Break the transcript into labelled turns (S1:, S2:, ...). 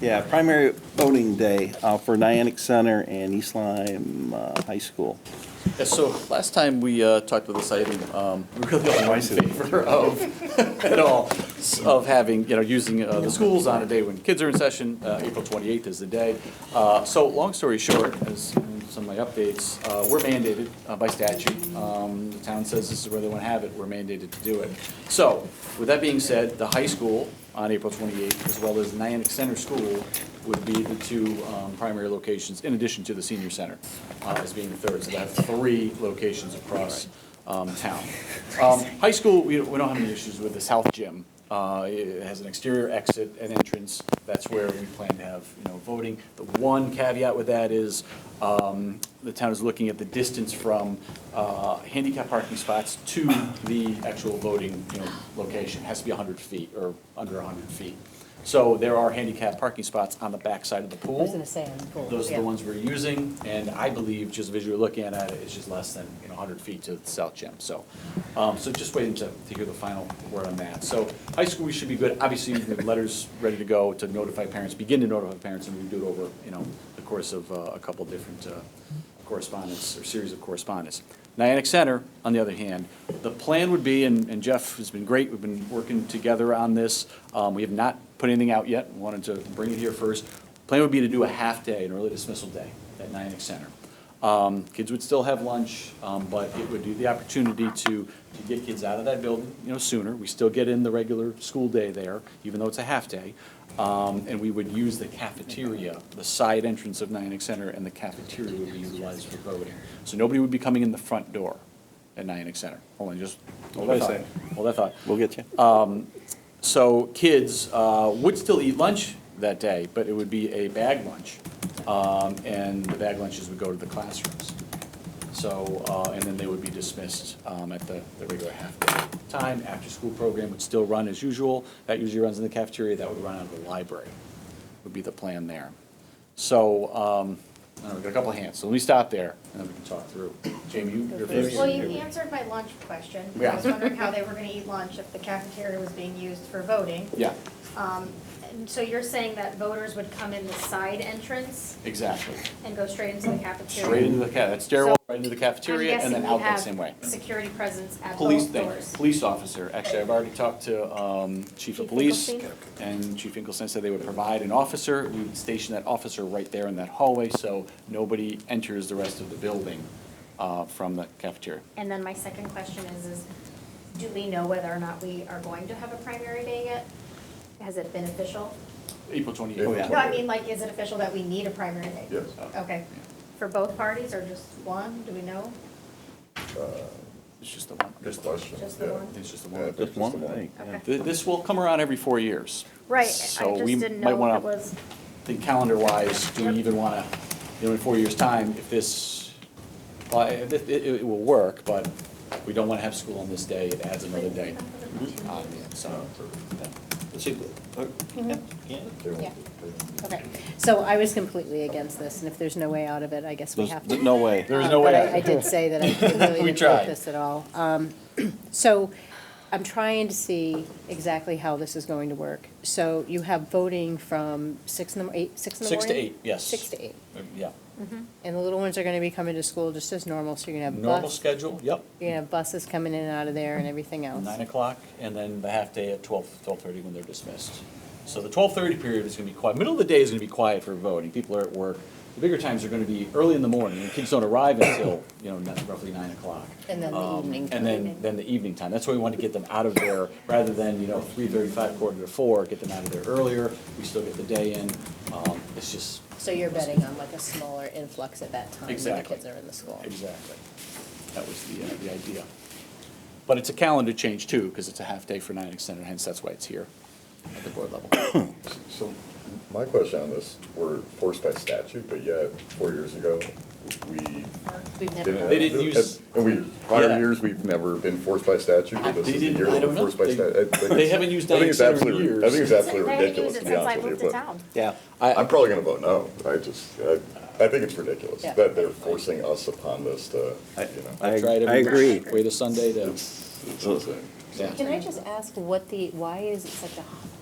S1: Yeah, primary voting day uh, for Nyannick Center and East Lyme uh, High School.
S2: Yeah, so last time we uh, talked about this item, um, we really all were in favor of, at all, s- of having, you know, using uh, the schools on a day when kids are in session. Uh, April 28th is the day. Uh, So, long story short, as in some of my updates, uh, we're mandated uh, by statute. Um, The town says this is where they want to have it, we're mandated to do it. So, with that being said, the high school on April 28th, as well as Nyannick Center School, would be the two um, primary locations, in addition to the senior center uh, as being the third. So that's three locations across um, town. Um, High school, we we don't have any issues with the south gym. Uh, It has an exterior exit and entrance. That's where we plan to have, you know, voting. The one caveat with that is um, the town is looking at the distance from uh, handicap parking spots to the actual voting, you know, location. It Has to be 100 feet or under 100 feet. So there are handicap parking spots on the backside of the pool.
S3: I was gonna say on the pool.
S2: Those are
S3: yeah.
S2: the ones we're using, and I believe, just visually looking at it, it's just less than, you know, hundred feet to the south gym, so. Um, so just waiting to, to hear the final word on that. So high school, we should be good, obviously, we have letters ready to go to notify parents, begin to notify parents, and we do it over, you know, the course of uh, a couple different uh, correspondence, or series of correspondence. Niantic Center, on the other hand, the plan would be, and and Jeff has been great, we've been working together on this, um, we have not put anything out yet, wanted to bring it here first. Plan would be to do a half-day, an early dismissal day at Nyack Center. Um, Kids would still have lunch, um, but it would be the opportunity to, to get kids out of that building, you know, sooner. We still get in the regular school day there, even though it's a half-day. Um, And we would use the cafeteria, the side entrance of Nyack Center, and the cafeteria would be utilized for voting. So nobody would be coming in the front door at Nyack Center. Hold on, just, hold that
S1: Wait a
S2: thought.
S1: second.
S2: Hold that thought.
S1: We'll get you.
S2: So kids uh, would still eat lunch that day, but it would be a bag lunch. Um, And the bag lunches would go to the classrooms. So, uh, and then they would be dismissed um, at the the regular half-day time. After-school program would still run as usual. That usually runs in the cafeteria. That would run out of the library, would be the plan there. So, um, I don't know, we've got a couple of hands, so let me stop there, and then we can talk through. Jamie, you- you're first.
S4: Well, you answered my lunch question. I was wondering how they were gonna eat lunch if the cafeteria was being used for voting.
S2: Yeah,
S4: And so you're saying that voters would come in the side entrance
S2: exactly.
S4: and go straight into the cafeteria?
S2: Straight into the, ca- that stairwell, right into the cafeteria,
S4: I'm
S2: and then
S4: guessing
S2: out
S4: we
S2: that
S4: have
S2: same way.
S4: Security presence at
S2: Police
S4: both
S2: thing,
S4: doors.
S2: police officer, actually, I've already talked to um, chief of
S4: Chief
S2: police,
S4: Finkelstein?
S2: and Chief Finkelstein said they would provide an officer, we would station that officer right there in that hallway, so nobody enters the rest of the building uh, from the cafeteria.
S4: And then my second question is, is do we know whether or not we are going to have a primary day yet? Has it been official?
S2: April twenty-eighth.
S5: Oh, yeah.
S4: No, I mean, like, is it official that we need a primary day?
S5: Yes.
S4: Okay. For both parties or just one? Do we know?
S2: It's just the one.
S5: Good question.
S4: Just the
S5: yeah.
S4: one?
S2: It's just the
S5: Yeah,
S2: one.
S1: Just one thing. yeah.
S4: Okay.
S2: Th- This will come around every four years.
S4: Right, I
S2: So
S4: just
S2: we
S4: didn't
S2: might
S4: know if
S2: want
S4: it
S2: to
S4: was,
S2: think calendar-wise, do
S4: Yep.
S2: we even want to, you know, in four years' time, if this, well, it, it, it will work, but we don't want to have school on this day, it adds another day.
S4: Hmm.
S2: on
S4: Mm-hmm.
S2: it, So,
S3: Yeah. Okay, so I was completely against this, and if there's no way out of it, I guess we
S1: There's
S3: have to.
S1: no way.
S2: There is
S3: Uh,
S2: no way
S3: but I-
S2: out.
S3: I did say that I really
S2: We
S3: didn't
S2: tried.
S3: like this at all. Um, So I'm trying to see exactly how this is going to work. So you have voting from six in the, eight, six in the
S2: Six to
S3: morning?
S2: eight, yes.
S3: Six to eight.
S2: yeah.
S3: And the little ones are gonna be coming to school just as normal, so you're gonna have
S2: Normal
S3: bus,
S2: schedule, yep,
S3: you're gonna have buses coming in and out of there and everything else.
S2: nine o'clock, and then the half-day at twelve, twelve-thirty when they're dismissed. So the twelve-thirty period is gonna be quiet, middle of the day is gonna be quiet for voting, people are at work. The bigger times are gonna be early in the morning, and kids don't arrive until, you know, not- roughly nine o'clock.
S3: And then the
S2: Um,
S3: evening
S2: And then, then the evening time, that's why we want to get them out of there, rather than, you know, three thirty-five, quarter to four, get them out of there earlier, we still get the day in, um, it's just,
S3: So you're betting on like a smaller influx at that time when the
S2: Exactly.
S3: kids are in the school?
S2: Exactly. That was the, uh, the idea. But it's a calendar change too, because it's a half-day for nine extended, hence that's why it's here at the board level.
S5: So my question on this, we're forced by statute, but yet, four years ago, we
S3: We've
S5: didn't.
S3: never,
S2: They didn't use-
S5: And we,
S2: Yeah.
S5: prior years, we've never been forced by statute, but this
S2: They
S5: is the
S2: didn't-
S5: year
S2: I
S5: we're
S2: don't know.
S5: forced by
S2: They-
S5: statute. I think
S2: they
S5: it's-
S2: haven't used
S5: I think it's
S2: Dyke's in
S5: absolutely ri- I
S2: years.
S5: think it's absolutely
S4: They haven't used
S5: ridiculous,
S4: it
S5: to be
S4: since I
S5: honest with
S4: moved
S5: you.
S4: to
S5: but-
S4: town.
S1: Yeah.
S5: I'm probably gonna vote no. I just, I, I think it's ridiculous
S3: Yeah.
S5: that they're forcing us upon this to, you know,
S1: I-
S2: I've tried
S1: I
S2: every-
S1: agree.
S2: Wait a Sunday to,
S5: it's, it's insane.
S2: yeah.
S3: can I just ask what the, why is it such a